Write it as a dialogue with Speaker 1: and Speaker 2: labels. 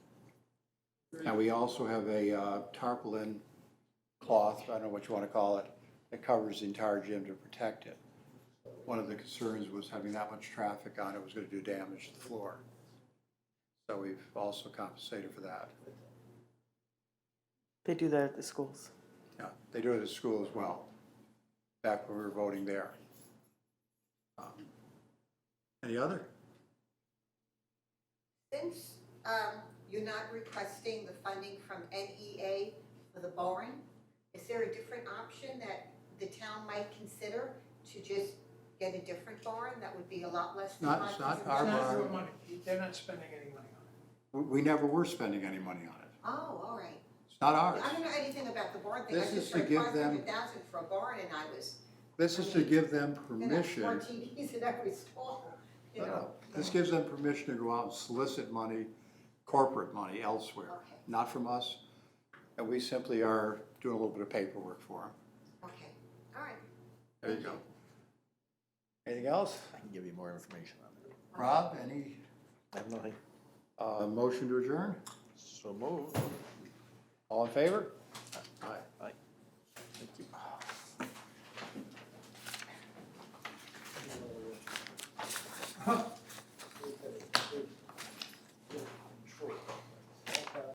Speaker 1: And we also have a uh, tarpaulin cloth, I don't know what you want to call it, that covers the entire gym to protect it. One of the concerns was having that much traffic on it was going to do damage to the floor. So we've also compensated for that.
Speaker 2: They do that at the schools.
Speaker 1: Yeah, they do it at school as well, back when we were voting there. Um, Any other?
Speaker 3: Since um, you're not requesting the funding from NEA for the boring, is there a different option that the town might consider to just get a different boring that would be a lot less than
Speaker 1: Not- it's
Speaker 3: five
Speaker 1: not
Speaker 3: thousand
Speaker 1: our
Speaker 4: It's
Speaker 3: dollars?
Speaker 4: not your
Speaker 1: bar.
Speaker 4: money, they're not spending any money on it.
Speaker 1: We, we never were spending any money on it.
Speaker 3: Oh, all right.
Speaker 1: It's not
Speaker 3: I
Speaker 1: ours.
Speaker 3: don't know anything about the boring thing. I
Speaker 1: This is
Speaker 3: just
Speaker 1: to
Speaker 3: heard
Speaker 1: give
Speaker 3: five
Speaker 1: them-
Speaker 3: hundred thousand for a boring and I was,
Speaker 1: This is to give them
Speaker 3: and that's
Speaker 1: permission. Uh-huh.
Speaker 3: fourteen keys in every stall, you
Speaker 1: No,
Speaker 3: know?
Speaker 1: no. This gives them permission to go out and solicit money, corporate money elsewhere,
Speaker 3: Okay.
Speaker 1: not from us. And we simply are doing a little bit of paperwork for them.
Speaker 3: Okay, all right.
Speaker 1: There you go. Anything else?
Speaker 5: I can give you more information on it.
Speaker 1: Rob, any,
Speaker 5: I have nothing.
Speaker 1: uh, motion to adjourn?
Speaker 5: So moved.
Speaker 1: All in favor?